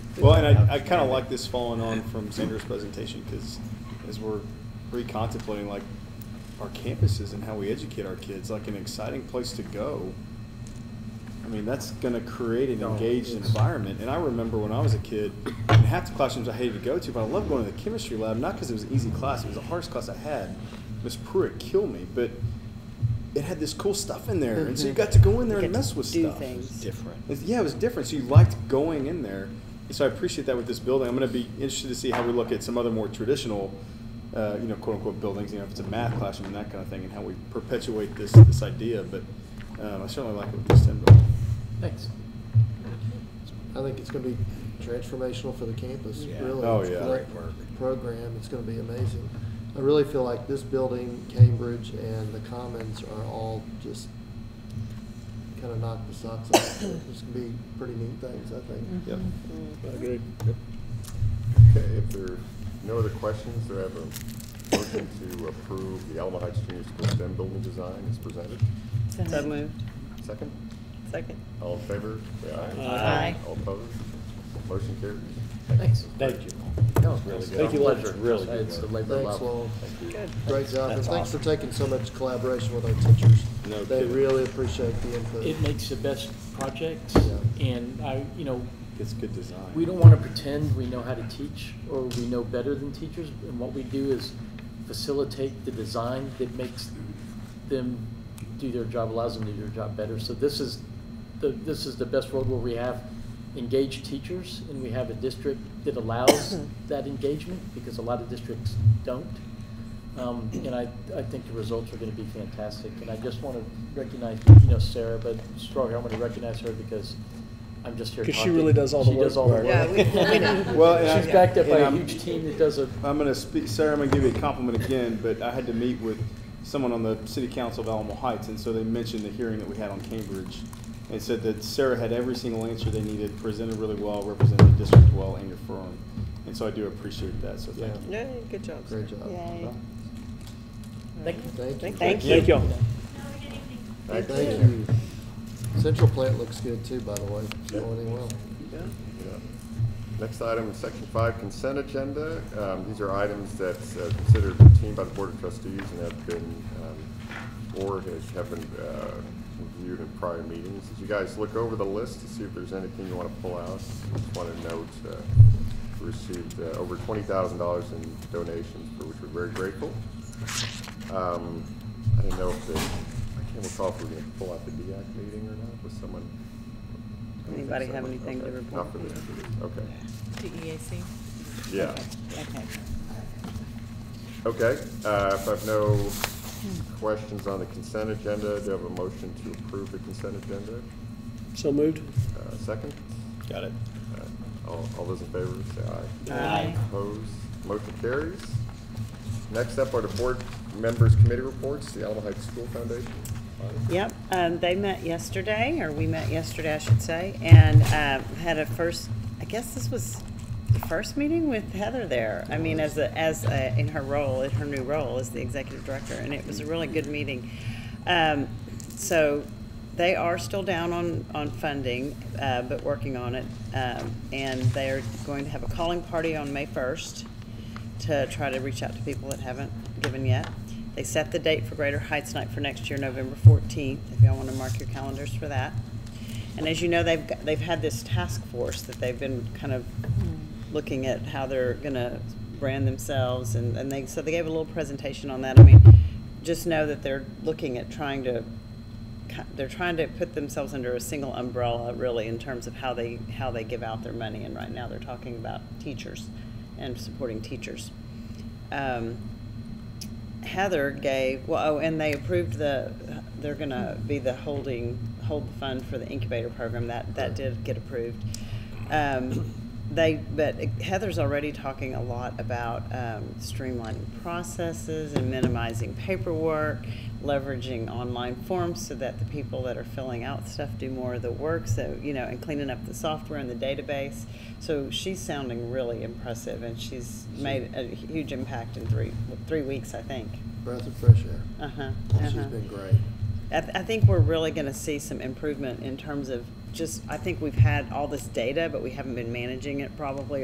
Well, and I, I kind of like this following on from Sandra's presentation, because as we're recontemplating, like, our campuses and how we educate our kids, like, an exciting place to go. I mean, that's gonna create an Oh, engaged it's- environment, and I remember when I was a kid, in half the classrooms I hated to go to, but I loved going to the chemistry lab, not because it was an easy class, it was the hardest class I had. Miss Pruitt killed me, but it had this cool stuff in there, and so you Mm-hmm. Mhm. got to go in there You and get to mess with do stuff. things. Different. It's- Yeah, it was different. So you liked going in there. And So I appreciate that with this building. I'm going to be interested to see how we look at some other more traditional, uh, you know, quote unquote buildings. You know, if it's a math classroom and that kind of thing, and how we perpetuate this this idea. But um, I certainly like it with this ten building. Thanks. I think it's gonna be transformational for the campus, Yeah. really. Oh, for yeah. that Great work. Program, it's gonna be amazing. I really feel like this building, Cambridge, and the Commons are all just kinda knock the socks off. It's gonna be pretty neat things, I think. Yep. Agreed. Okay, if there are no other questions, do I have a motion to approve the Alma Heights Junior School STEM building design as presented? So moved. Second? Second. All in favor, say aye. Aye. All opposed? Motion carries. Thanks. Thank you. That was really good. Thank you, Lynn. It's really good It's the work. labor Thanks, level. Lowell. Thank you. Good. Great job, and That's thanks for awesome. taking so much collaboration with our teachers. No They kidding. really appreciate the input. It makes the best projects, Yeah. and I, you know, It's good design. we don't want to pretend we know how to teach or we know better than teachers, and what we do is facilitate the design that makes them do their job, allows them to do their job better. So this is, the this is the best world where we have engaged teachers, and we have a district that allows that engagement, because a lot of districts don't. Um, and I, I think the results are gonna be fantastic, and I just wanna recognize, you know, Sarah, but stronger, I'm gonna recognize her because I'm just here 'Cause she talking. really does all the work. She does all the Yeah, we, work. we know. Well, and I- She's backed up by a and I'm- huge team that does a, I'm going to speak, Sarah. I'm going to give you a compliment again. But I had to meet with someone on the city council of Alamo Heights, and so they mentioned the hearing that we had on Cambridge, and said that Sarah had every single answer they needed, presented really well, represented the district well, and your firm. And so I do appreciate that. So thank Yeah. you. Yay, good job. Great job. Well, thank you. Thank you. Thank you. Thank y'all. Thank you. Thank you. Central plant looks good too, by the way. It's going in well. Yeah. Next item, section five consent agenda. Um, These are items that uh, considered routine by the Board of Trustees and have been, um, or has, have been uh, reviewed in prior meetings. As you guys look over the list to see if there's anything you want to pull out, just want to note, uh, we received uh, over twenty thousand dollars in donations, for which we're very grateful. Um, I didn't know if the, I can't recall if we we're going to pull out the DEAC meeting or not with someone. Anybody have Someone- anything to okay, report? Not for this, for this, okay. DEAC? Yeah, Okay. okay. Uh, If I have no questions on the consent agenda, do I have a motion to approve the consent agenda? So moved? Uh, Second? Got it. Uh, All all those in favor, say aye. Aye. Opposed? Motion carries. Next up are the board members' committee reports, the Alamo Heights School Foundation. Yep, um, they met yesterday, or we met yesterday, I should say, and, um, had a first, I guess this was the first meeting with Heather there. I mean, as a, as a, in her role, in her new role as the executive director, and it was a really good meeting. Um, so they are still down on, on funding, uh, but working on it. Um, and they're going to have a calling party on May first to try to reach out to people that haven't given yet. They set the date for Greater Heights Night for next year, November 14th, if y'all want to mark your calendars for that. And as you know, they've, got- they've had this task force that they've been kind of looking at how they're going to brand themselves, and, and they, so they gave a little presentation on that. I mean, just know that they're looking at trying to ki- they're trying to put themselves under a single umbrella really in terms of how they how they give out their money and right now they're talking about teachers and supporting teachers um, heather gave well oh and they approved the they're going to be the holding hold the fund for the incubator program that that did get approved um, they but heather's already talking a lot about um, streamlining processes and minimizing paperwork leveraging online forms so that the people that are filling out stuff do more of the work so you know and cleaning up the software and the database so she's sounding really impressive and she's made a huge impact in three three weeks i think Breath of fresh air. uh-huh, Oh, She's uh-huh. been great. I, th- I think we're really going to see some improvement in terms of just, I think we've had all this data, but we haven't been managing it probably